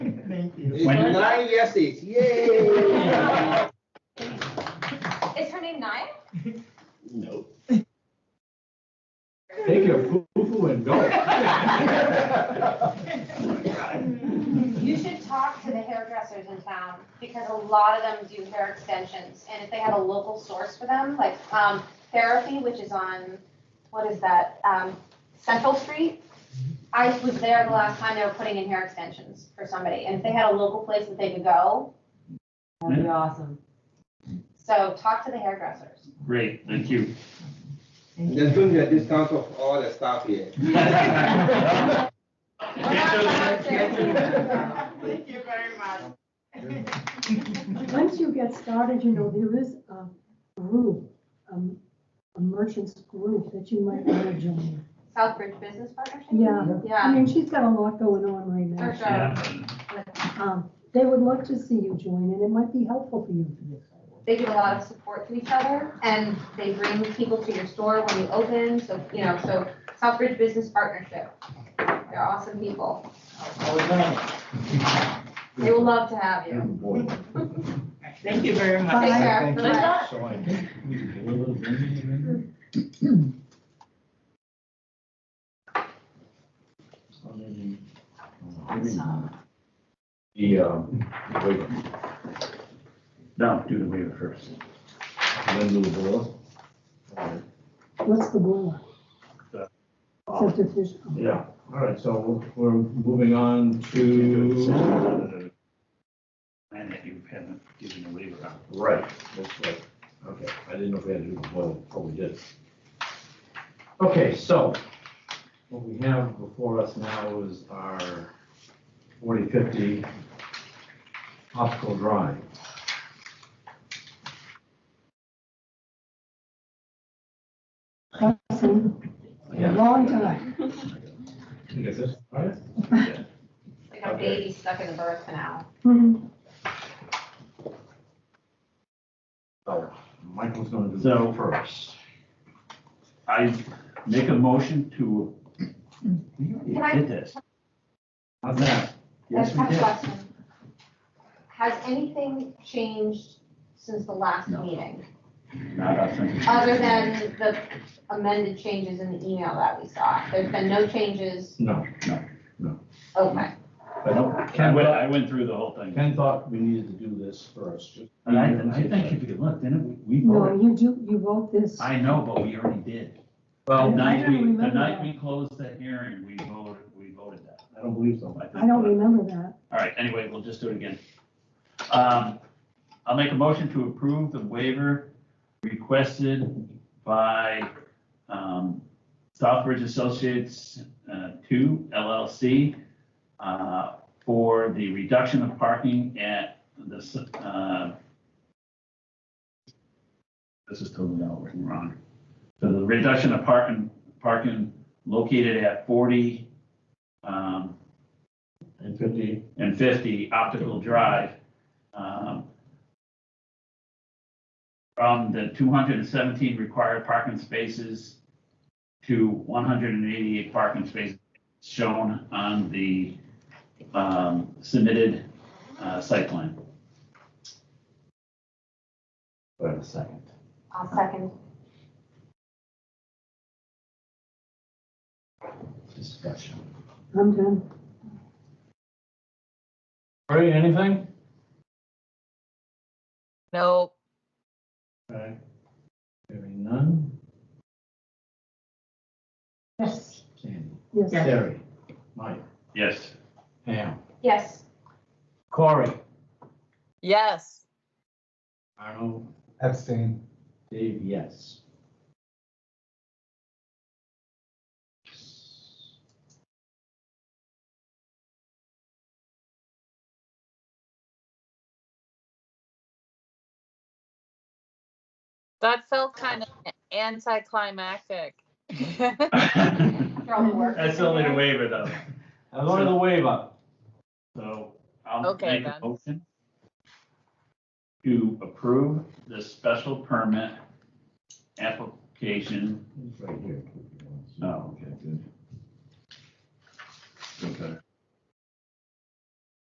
It's When- nine yeses, yay! Is her name Naya? No. Take your foo-foo and go. You should talk to the hairdressers in town, because a lot of them do hair extensions, and if they have a local source for them, like, um, therapy, which is on, what is that, um, Central Street? I was there the last time they were putting in hair extensions for somebody, and if they had a local place that they could go, That'd be awesome. so talk to the hairdressers. Great, thank you. There's going to be a discount of all the stuff here. Thank you very much. Once you get started, you know, there is a group, um, a merchants group that you might want to join. Southbridge Business Partnership? Yeah, I Yeah, mean, she's got a lot going on right for now. sure. Um, They would love to see you join, and it might be helpful for you. they give a lot of support to each other and they bring people to your store when you open, so, you know, so Southbridge Business Partnership. They're awesome people. They will love to have you. Thank you very much. Bye. Take care. Thank you. Bye-bye. So I think we need to do a little bit of- Or maybe- maybe not. The, um, wait, No, do the waiver first. and then do the boil. Alright. What's the goal? Subdivision. Yeah, all right, so we're moving on to, And if you haven't given a waiver out. right, that's right. Okay, I didn't know if we had to do the boil before we did. Okay, so what we have before us now is our 4050 optical drawing. Awesome. Yeah. Long time. You get this? All right. Like a baby stuck in the birth canal. Mhm. So Michael's gonna do So- that first. I make a motion to, we Can I- already did this. How's that? Yes, That's we my did. question. Has anything changed since the last No. meeting? Not us. Other than the amended changes in the email that we saw? There's been no changes? No, Okay. but I Ken, went, I went through the whole thing. Ken thought we needed to do this first. just- And I, I think if you look, then we we No, voted. you do, you vote this. I know, but we already did. The I Well, night don't we, the remember night that. we closed the hearing, we voted, we voted that. I don't believe so. think- uh, I don't remember that. All right, anyway, we'll just do it again. Um, I'll make a motion to approve the waiver requested by um, Southbridge Associates uh, Two LLC uh, for the reduction of parking at the, s- uh, this is totally all written wrong. So the reduction of parking, parking located at 40 um, and fifty, and 50 optical drive um, from the 217 required parking spaces to 188 parking spaces shown on the um, submitted uh, site plan. wait a second. I'll second. Discussion. I'm done. Ray, anything? Nope. Okay. Hearing none. Yes, Sandy. yes. Terry. Mike. Yes. Pam. Yes. Corey. Yes. Arnold. Abstain. Dave, yes. That felt kind of anticlimactic. They're all working. That's only the waiver though. I wanted to wave up. So I'll Okay, make a then. motion to approve the special permit application It's right here. Oh, okay, good. Okay.